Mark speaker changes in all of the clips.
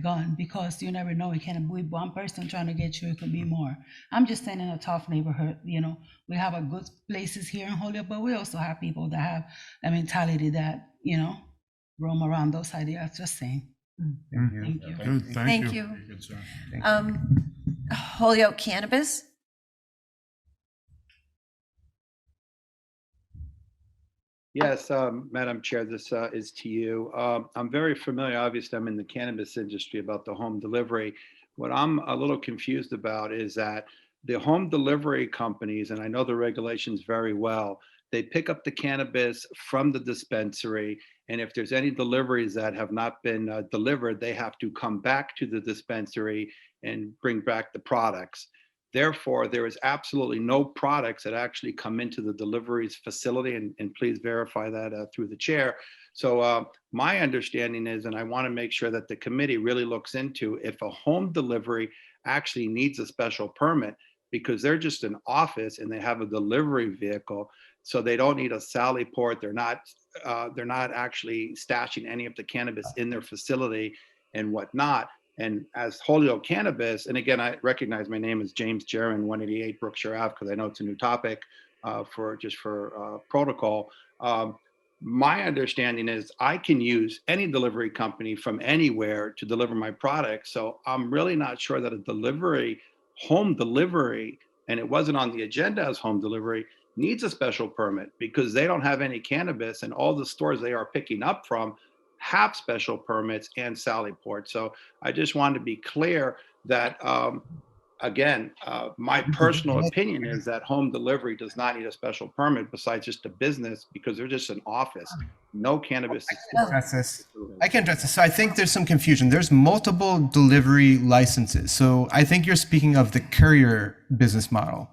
Speaker 1: gun because you never know. It can be one person trying to get you. It could be more. I'm just saying in a tough neighborhood, you know, we have a good places here in Holyoke, but we also have people that have a mentality that, you know, roam around those ideas. Just saying.
Speaker 2: Thank you.
Speaker 1: Thank you.
Speaker 3: Good,
Speaker 4: Thank
Speaker 3: thank you.
Speaker 4: you.
Speaker 2: Very good, sir.
Speaker 4: Mm-hmm. Um, Holyoke Cannabis?
Speaker 5: Yes, um, Madam Chair, this uh, is to you. Um, I'm very familiar, obviously, I'm in the cannabis industry about the home delivery. What I'm a little confused about is that the home delivery companies, and I know the regulations very well, they pick up the cannabis from the dispensary. And if there's any deliveries that have not been uh, delivered, they have to come back to the dispensary and bring back the products. Therefore, there is absolutely no products that actually come into the deliveries facility, and, and please verify that uh, through the chair. So uh, my understanding is, and I want to make sure that the committee really looks into if a home delivery actually needs a special permit because they're just an office and they have a delivery vehicle, so they don't need a sally port. They're not uh, they're not actually stashing any of the cannabis in their facility and whatnot. And as Holyoke Cannabis, and again, I recognize my name is James Jaron, 188 Brookshire Ave, because I know it's a new topic uh, for just for uh, protocol. Um, my understanding is I can use any delivery company from anywhere to deliver my product. So I'm really not sure that a delivery, home delivery, and it wasn't on the agenda as home delivery, needs a special permit because they don't have any cannabis, and all the stores they are picking up from have special permits and Sallyport. So I just wanted to be clear that, um, again, uh, my personal opinion is that home delivery does not need a special permit besides just a business because they're just an office. No cannabis.
Speaker 4: oh.
Speaker 5: is-
Speaker 6: address this. I can address this. So I think there's some confusion. There's multiple delivery licenses. So I think you're speaking of the courier business model,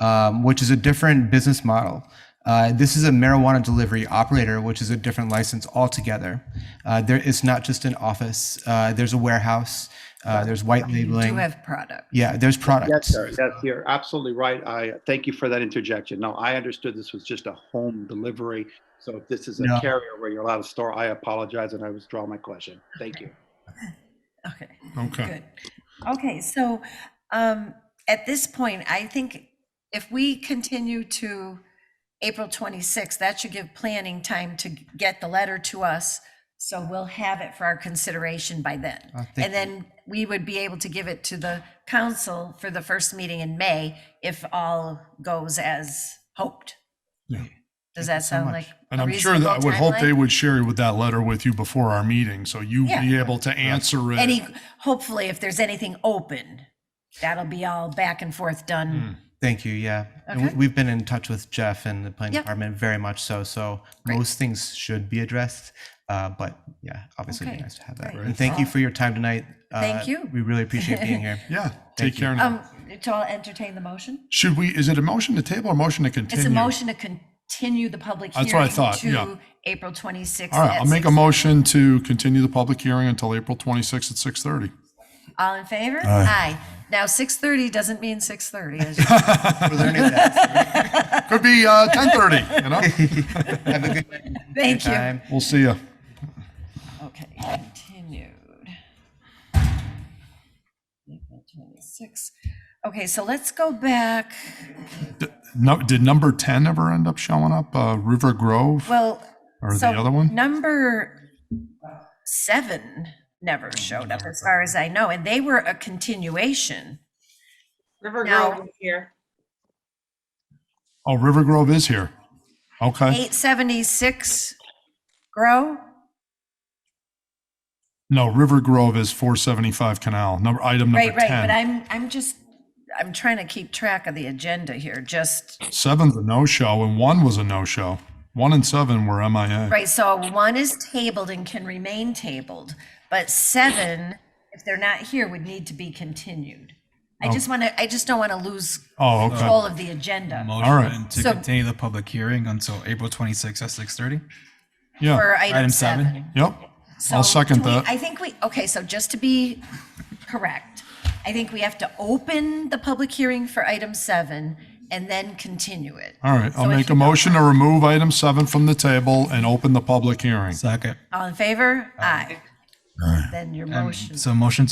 Speaker 6: um, which is a different business model. Uh, this is a marijuana delivery operator, which is a different license altogether. Uh, there, it's not just an office. Uh, there's a warehouse. Uh, there's white
Speaker 4: You do
Speaker 6: labeling.
Speaker 4: have product.
Speaker 6: yeah, there's products.
Speaker 5: Yes, sir. Yes, you're absolutely right. I thank you for that interjection. No, I understood this was just a home delivery. So if this is a
Speaker 6: No.
Speaker 5: carrier where you're allowed to store, I apologize and I withdraw my question. Thank you.
Speaker 4: Okay,
Speaker 2: Okay.
Speaker 4: good. Okay, so um, at this point, I think if we continue to April 26th, that should give planning time to get the letter to us. So we'll have it for our consideration by then.
Speaker 6: Oh, thank
Speaker 4: And
Speaker 6: you.
Speaker 4: then we would be able to give it to the council for the first meeting in May if all goes as hoped.
Speaker 2: Yeah.
Speaker 4: Does that
Speaker 6: so
Speaker 4: sound
Speaker 6: much.
Speaker 4: like
Speaker 2: And
Speaker 4: a
Speaker 2: I'm sure that I
Speaker 4: reasonable
Speaker 2: would hope they
Speaker 4: timeline?
Speaker 2: would share with that letter with you before our meeting, so you
Speaker 4: Yeah.
Speaker 2: be able to answer it.
Speaker 4: Any, hopefully if there's anything open, that'll be all back and forth done.
Speaker 6: Thank you. Yeah. And
Speaker 4: Okay.
Speaker 6: we- we've been in touch with Jeff and the planning
Speaker 4: Yeah.
Speaker 6: department very much so. So
Speaker 4: Great.
Speaker 6: most things should be addressed. Uh, but yeah, obviously it'd
Speaker 4: Okay.
Speaker 6: be nice to have that.
Speaker 4: Great.
Speaker 6: And thank you for your time tonight.
Speaker 4: Thank
Speaker 6: Uh,
Speaker 4: you.
Speaker 6: We really appreciate being here.
Speaker 2: Yeah, take care
Speaker 4: Um,
Speaker 2: now.
Speaker 4: so I'll entertain the motion.
Speaker 2: Should we, is it a motion to table or motion to continue?
Speaker 4: It's a motion to continue the public hearing
Speaker 2: That's what I thought, yeah.
Speaker 4: to April 26th.
Speaker 2: All right,
Speaker 4: at
Speaker 2: I'll make a
Speaker 4: 6.
Speaker 2: motion to continue the public hearing until April 26th at 6:30.
Speaker 4: All in favor? Aye. Now 6:30 doesn't mean 6:30. as you-
Speaker 2: Could be uh, 10:30, you know?
Speaker 4: Thank you.
Speaker 6: Time.
Speaker 2: We'll see you.
Speaker 4: Okay, continued. April 26th. Okay, so let's go back.
Speaker 2: No, did number 10 ever end up showing up? Uh, River Grove
Speaker 4: Well,
Speaker 2: or the
Speaker 4: so
Speaker 2: other one?
Speaker 4: number seven never showed up, as far as I know, and they were a continuation.
Speaker 7: River
Speaker 4: Now-
Speaker 7: Grove is here.
Speaker 2: Oh, River Grove is here. Okay.
Speaker 4: 876 Grow?
Speaker 2: No, River Grove is 475 Canal, number, item number
Speaker 4: Right, right, but
Speaker 2: 10.
Speaker 4: I'm, I'm just, I'm trying to keep track of the agenda here, just,
Speaker 2: Seven's a no-show and one was a no-show. One and seven were MIA.
Speaker 4: right, so one is tabled and can remain tabled, but seven, if they're not here, would need to be continued. I just want to, I just don't want to lose
Speaker 2: Oh, okay.
Speaker 4: control of the agenda
Speaker 2: right.
Speaker 8: Motion to
Speaker 4: So-
Speaker 8: continue the public hearing until April 26th at 6:30.
Speaker 2: Yeah,
Speaker 4: for item
Speaker 8: Item seven.
Speaker 4: seven.
Speaker 2: yep. I'll
Speaker 4: So
Speaker 2: second
Speaker 4: do we- I
Speaker 2: that.
Speaker 4: think we, okay, so just to be correct, I think we have to open the public hearing for item seven and then continue it.
Speaker 2: All right, I'll
Speaker 4: so if
Speaker 2: make
Speaker 4: you
Speaker 2: a motion to remove item seven from the table and open the public hearing.
Speaker 8: Second.
Speaker 4: All in favor? Aye. then your
Speaker 8: Um,
Speaker 4: motion.
Speaker 8: So motion